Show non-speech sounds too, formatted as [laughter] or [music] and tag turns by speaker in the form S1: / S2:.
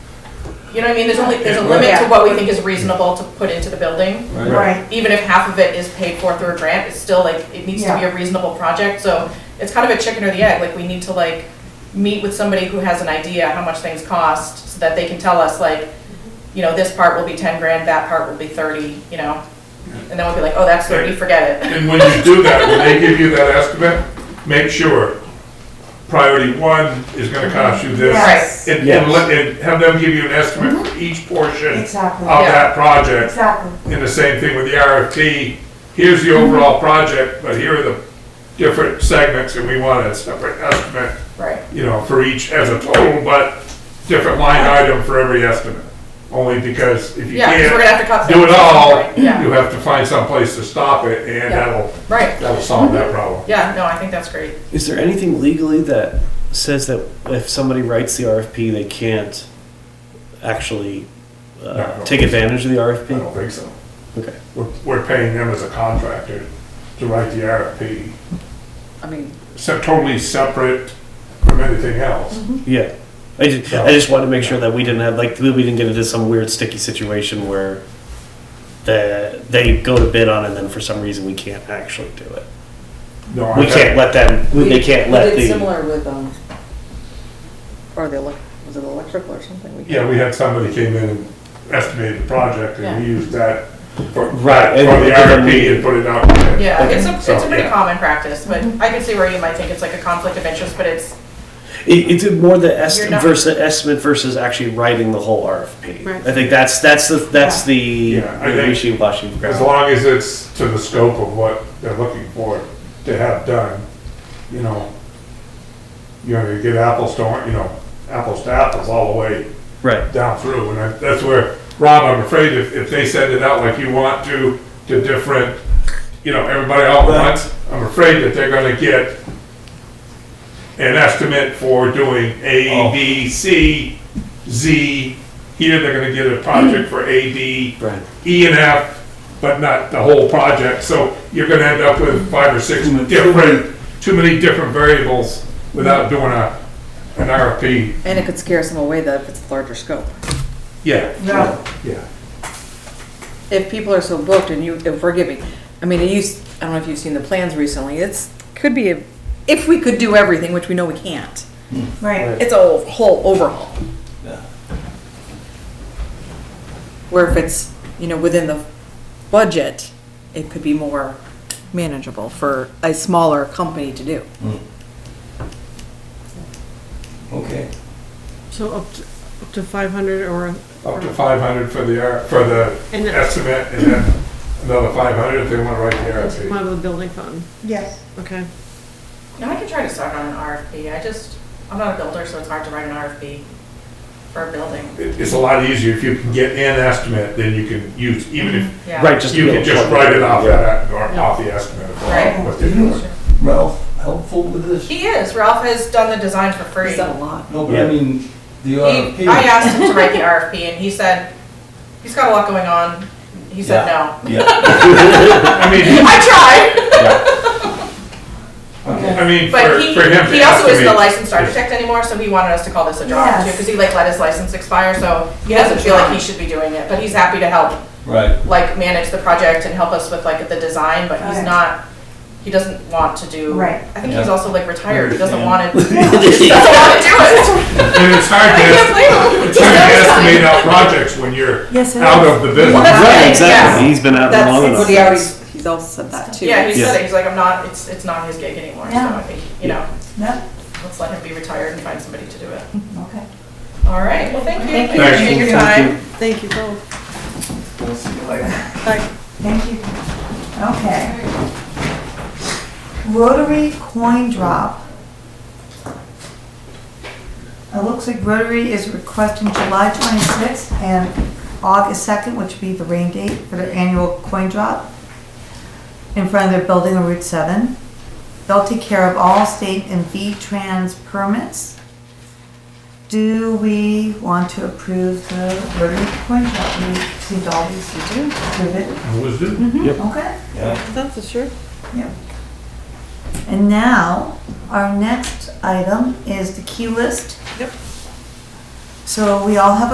S1: You know what I mean? There's only, there's a limit to what we think is reasonable to put into the building.
S2: Right,
S1: Even if half of it is paid for through a grant, it's still like, it needs to be a reasonable project, so it's kind of a chicken or the egg, like, we need to like, meet with somebody who has an idea how much things cost, so that they can tell us like, you know, this part will be ten grand, that part will be thirty, you know? And then we'll be like, oh, that's thirty, forget it.
S3: And when you do that, when they give you that estimate, make sure priority one is gonna cost you this.
S2: Yes.
S3: And,
S4: Yes.
S3: and let- and have them give you an estimate
S1: Mm-hmm.
S3: for each portion of
S2: exactly,
S3: that project.
S2: exactly.
S3: And the same thing with the RFP, here's the
S1: Mm-hmm.
S3: overall project, but here are the different segments, and we want a separate estimate,
S1: Right.
S3: you know, for each as a total, but different line item for every estimate. Only because if you
S1: Yeah, because we're
S3: can't
S1: gonna have to cut.
S3: do it
S1: things.
S3: all,
S1: Yeah,
S3: [laughs] you have to find someplace to stop it, and
S1: Yeah.
S3: that'll
S1: right,
S3: That'll solve that problem.
S1: yeah, no, I think that's great.
S4: Is there anything legally that says that if somebody writes the RFP, they can't actually
S3: No,
S4: uh,
S3: no.
S4: take advantage of the
S3: I
S4: RFP?
S3: don't think so.
S4: Okay.
S3: We're, we're paying them as a contractor to write the RFP,
S5: I mean,
S3: so totally separate from anything else.
S4: Yeah. I just, I just wanted to make sure that we didn't have, like, we didn't get into some weird sticky situation where the, they go to bid on it and then for some reason we can't actually do it.
S3: No, I
S4: We can't let them,
S5: we
S4: they can't
S5: we
S4: let
S5: did
S4: the,
S5: Similar with, um, or the, elec- was it electrical or something? We-
S3: Yeah, we had somebody came in and estimated the project and we used that for, for the
S4: Right, and we-
S3: RFP and put it out. there.
S1: Yeah, it's a,
S3: So,
S1: it's a pretty
S3: yeah.
S1: common practice, but I can see where you might think it's like a conflict of interest, but it's,
S4: it, it's more the
S1: You're
S4: estimate
S1: not-
S4: versus, estimate versus actually writing the whole RFP.
S5: Right.
S4: I think that's, that's the, that's the
S3: Yeah, I think-
S4: wishy-washy.
S3: As long as it's to the scope of what they're looking for to have done, you know, you know, you get apples to, or- you know, apples to apples all the way
S4: Right.
S3: down through, and I- that's where, Rob, I'm afraid if, if they send it out like you want to, to different, you know, everybody all at once, I'm afraid that they're gonna get an estimate for doing A, B, C, Z, here they're gonna get a project for A, B,
S4: Right.
S3: E and F, but not the whole project, so you're gonna end up with five or six different, too many different variables without doing a, an RFP.
S5: And it could scare some away that if it's a larger scope.
S3: Yeah.
S2: Yeah.
S3: Yeah.
S5: If people are so booked and you, if we're giving, I mean, it used, I don't know if you've seen the plans recently, it's, could be, a if we could do everything, which we know we can't,
S2: Right,
S5: it's a whole overhaul. Where if it's, you know, within the budget, it could be more manageable for a smaller company to do.
S6: Okay.
S7: So up to, up to five hundred or,
S3: Up to five hundred for the, R- for the
S7: and then
S3: estimate, and then another five hundred if they wanna write the RFP.
S7: out of the building fund,
S2: yes.
S7: okay.
S1: you know, I can try to start on an RFP, I just, I'm not a builder, so it's hard to write an RFP for a building,
S3: It- It's a lot easier if you can get an estimate, then you can use, even if,
S1: yeah.
S4: Right, Mm-hmm. just.
S3: you
S4: to be
S3: can
S4: able to
S3: just
S4: plug
S3: write it off
S4: Yeah.
S3: that, or off the estimate of
S1: Right.
S3: what they're
S4: [laughs]
S3: doing.
S6: Ralph, helpful with this?
S1: He is, Ralph has done the design for free.
S5: We've done a lot.
S6: No, but I mean, the
S1: He,
S3: uh,
S6: RFP.
S1: I asked him to write the RFP, and he said, he's got a lot going on, he said no.
S6: Yeah.
S3: I mean,
S1: I tried,
S6: Okay.
S3: I mean, for,
S1: but he,
S3: for him to
S1: he also isn't a
S3: estimate,
S1: licensed architect anymore, so he wanted us to call this a job, too,
S2: Yes.
S1: because he like let his license expire, so he doesn't feel like he should be doing it, but he's happy to help
S6: Right.
S1: like manage the project and help us with like the design, but he's
S2: Right.
S1: not, he doesn't want to do.
S2: Right.
S1: I think he's
S6: Yeah.
S1: also like retired, he doesn't
S6: Understand.
S1: want to, he doesn't want to do it.
S3: and it's
S1: [laughs] I
S3: hard to,
S1: can't
S3: es-
S1: blame him.
S3: it's hard to estimate out projects when you're
S2: Yes, it
S3: out
S2: is.
S3: of the business.
S4: Right,
S1: Yeah.
S4: exactly. He's been out long
S5: That's,
S4: enough.
S5: but he already, he's also said that too.
S1: [laughs] Yeah, he
S4: Yes.
S1: said it, he's like, I'm not, it's, it's not his gig anymore, so
S2: Yeah.
S1: I think, you know,
S2: No,
S1: let's let him be retired and find somebody to do it.
S2: okay.
S1: All right, well, thank you.
S2: Thank
S3: you.
S1: Appreciate your time.
S7: Thank you both.
S6: We'll see you later.
S2: Thank you. Okay. Rotary coin drop. It looks like Rotary is requesting July 26th and August 2nd, which would be the rain date for their annual coin drop in front of their building on Route 7. They'll take care of all state and V-Trans permits. Do we want to approve the Rotary coin drop? We seem to always do, approve it.
S3: Was it?
S2: Okay,
S6: Yeah.
S7: That's for sure.
S2: and now, our next item is the key list.
S7: Yep.
S2: So we all have a